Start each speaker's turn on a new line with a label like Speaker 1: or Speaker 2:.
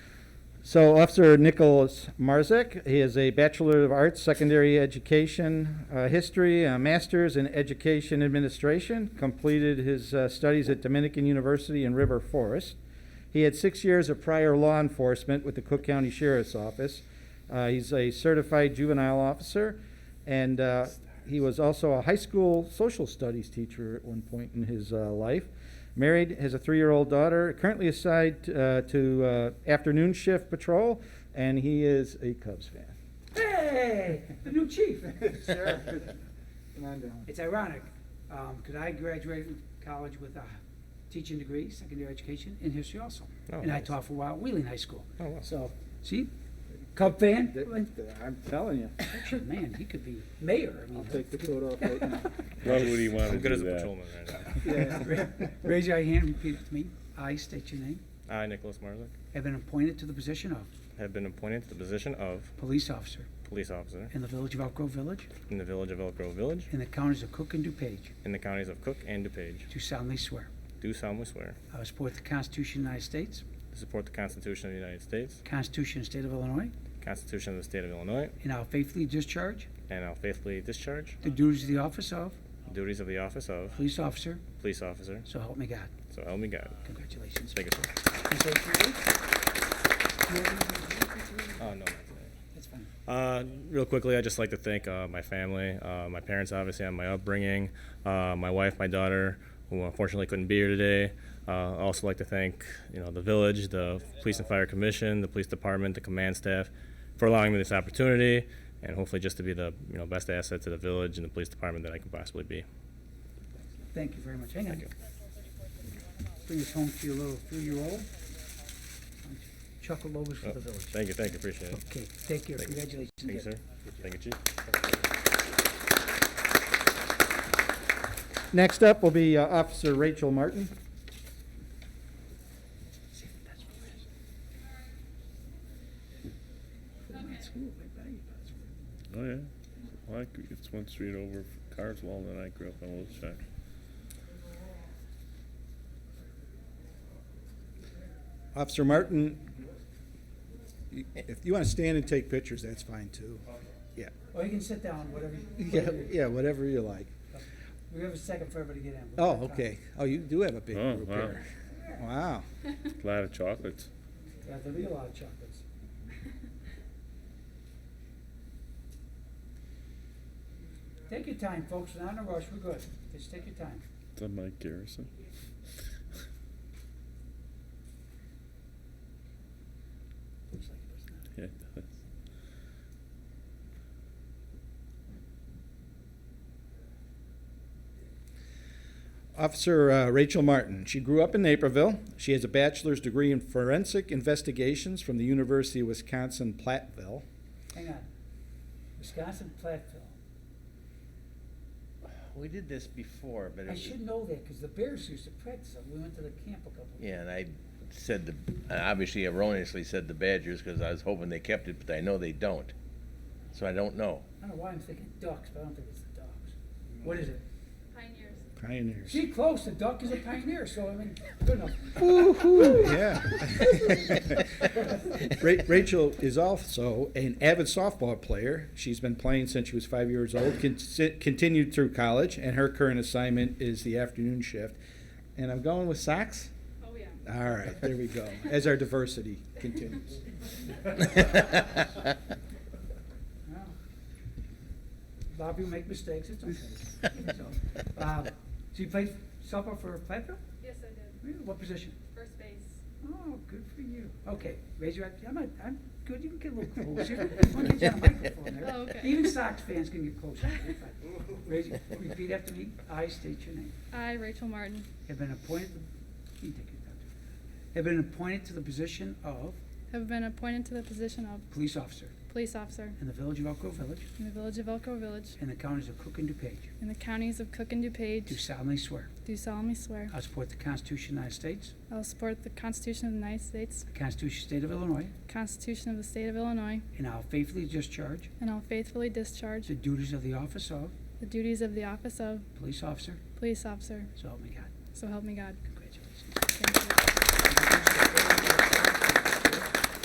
Speaker 1: So Officer Nicholas Marzek, he has a Bachelor of Arts, Secondary Education, uh, History, a Master's in Education Administration, completed his uh, studies at Dominican University in River Forest. He had six years of prior law enforcement with the Cook County Sheriff's Office. Uh, He's a certified juvenile officer, and uh, he was also a high school social studies teacher at one point in his uh, life. Married, has a three-year-old daughter, currently assigned uh, to uh, afternoon shift patrol, and he is a Cubs fan.
Speaker 2: Hey, the new chief.
Speaker 3: Sure. Come on down.
Speaker 2: It's ironic, because I graduated from college with a teaching degree, secondary education, in history also.
Speaker 4: Oh,
Speaker 2: And I
Speaker 4: nice.
Speaker 2: taught for a while at Wheeling High School.
Speaker 4: Oh, wow.
Speaker 2: So, see, Cub fan?
Speaker 3: Th-
Speaker 2: Well,
Speaker 3: th- I'm telling you,
Speaker 2: actually, Man, he could be mayor. I mean,
Speaker 3: I'll take the coat off right now.
Speaker 5: Why would he want to
Speaker 4: I'm good
Speaker 5: do
Speaker 4: as a
Speaker 5: that?
Speaker 4: patrolman right
Speaker 3: Yeah.
Speaker 2: Raise your hand and repeat after me. I state your name.
Speaker 4: now. I, Nicholas Marzick,
Speaker 2: Have been appointed to the position of
Speaker 4: have been appointed to the position of
Speaker 2: police officer
Speaker 4: police officer
Speaker 2: in the village of Elk Grove Village,
Speaker 4: in the village of Elk Grove Village,
Speaker 2: in the counties of Cook and DuPage,
Speaker 4: in the counties of Cook and DuPage.
Speaker 2: do solemnly swear.
Speaker 4: Do solemnly swear
Speaker 2: I will support the Constitution of the United States,
Speaker 4: to support the Constitution of the United States,
Speaker 2: Constitution of the State of Illinois,
Speaker 4: Constitution of the State of Illinois,
Speaker 2: and I will faithfully discharge
Speaker 4: and I'll faithfully discharge
Speaker 2: the duties of the office of
Speaker 4: the duties of the office of
Speaker 2: police officer,
Speaker 4: police officer.
Speaker 2: so help me God.
Speaker 4: So help me God.
Speaker 2: Congratulations.
Speaker 4: Thank you, sir. Oh, no, not today.
Speaker 2: That's fine.
Speaker 4: Uh, real quickly, I'd just like to thank uh, my family, uh, my parents, obviously, on my upbringing, uh, my wife, my daughter, who unfortunately couldn't be here today. Uh, I also like to thank, you know, the village, the police and fire commission, the police department, the command staff, for allowing me this opportunity, and hopefully just to be the, you know, best asset to the village and the police department that I can possibly be.
Speaker 2: Thank you very much. Hang on.
Speaker 4: Thank you.
Speaker 2: Bring this home to your little three-year-old. Chuckle overs for the village.
Speaker 4: Uh, Thank you, thank you, appreciate it.
Speaker 2: Okay, take care.
Speaker 4: Thank you.
Speaker 2: Congratulations.
Speaker 4: Thank you, sir. Thank you, chief.
Speaker 1: Next up will be uh, Officer Rachel Martin.
Speaker 2: See, that's what it is. From that school, right by you, that's where-
Speaker 5: Oh, yeah. Well, I, c- it's one street over from Carswell that I grew up in Old Shack.
Speaker 1: Officer Martin,
Speaker 3: You- If you want to stand and take pictures, that's fine too. Yeah,
Speaker 2: Or you can sit down, whatever. you-
Speaker 3: yeah, yeah, whatever you like.
Speaker 2: We have a second for everybody to get in. We'll
Speaker 3: Oh,
Speaker 2: have time.
Speaker 3: okay. Oh, you do have a big
Speaker 5: Oh,
Speaker 3: group
Speaker 5: wow.
Speaker 3: here. Wow.
Speaker 5: A lot of chocolates.
Speaker 2: Yeah, There'll be a lot of chocolates. Take your time, folks. We're not in a rush. We're good. Just take your time.
Speaker 5: Is that Mike Garrison?
Speaker 2: Looks like it does not.
Speaker 5: Yeah, it does.
Speaker 1: Officer uh, Rachel Martin. She grew up in Naperville. She has a bachelor's degree in forensic investigations from the University of Wisconsin Platteville.
Speaker 2: Hang on. Wisconsin Platteville.
Speaker 6: We did this before, but it
Speaker 2: I
Speaker 6: was,
Speaker 2: should know that because the Bears used to practice it. We went to the camp a couple of
Speaker 6: yeah, and I said the, I obviously erroneously said the Badgers because I was hoping they kept it, but I know they don't. So I don't know.
Speaker 2: I don't know why I'm thinking ducks, but I don't think it's the ducks. What is it?
Speaker 7: Pioneers.
Speaker 3: Pioneers.
Speaker 2: See, close. The duck is a pioneer, so I mean, good enough.
Speaker 3: Yeah.
Speaker 1: Ra- Rachel is also an avid softball player. She's been playing since she was five years old, con- si- continued through college, and her current assignment is the afternoon shift. And I'm going with socks?
Speaker 7: Oh, yeah.
Speaker 1: All right, there we go, as our diversity continues.
Speaker 2: Well, Bobby will make mistakes. It's okay. So, um, So you played softball for Platteville?
Speaker 7: Yes, I did.
Speaker 2: Really? What position?
Speaker 7: First base.
Speaker 2: Oh, good for you. Okay, raise your, I'm, not- I'm good, you can get a little closer. I'm gonna get you on the microphone there.
Speaker 7: Oh, okay.
Speaker 2: Even Sox fans can get closer. Raise, your- repeat after me. I state your name.
Speaker 7: I, Rachel Martin,
Speaker 2: Have been appointed, to- you take it, Doctor. Have been appointed to the position of
Speaker 7: have been appointed to the position of
Speaker 2: police officer
Speaker 7: police officer
Speaker 2: in the village of Elk Grove Village
Speaker 7: in the village of Elk Grove Village
Speaker 2: and the counties of Cook and DuPage.
Speaker 7: in the counties of Cook and
Speaker 2: Do
Speaker 7: DuPage.
Speaker 2: solemnly swear.
Speaker 7: Do solemnly swear.
Speaker 2: I support the Constitution of the United States,
Speaker 7: I will support the Constitution of the United States,
Speaker 2: the Constitution of the State of Illinois,
Speaker 7: Constitution of the State of Illinois,
Speaker 2: and I'll faithfully discharge
Speaker 7: and I will faithfully discharge
Speaker 2: the duties of the office of
Speaker 7: the duties of the office of
Speaker 2: police officer,
Speaker 7: police officer.
Speaker 2: so help me God.
Speaker 7: So help me God.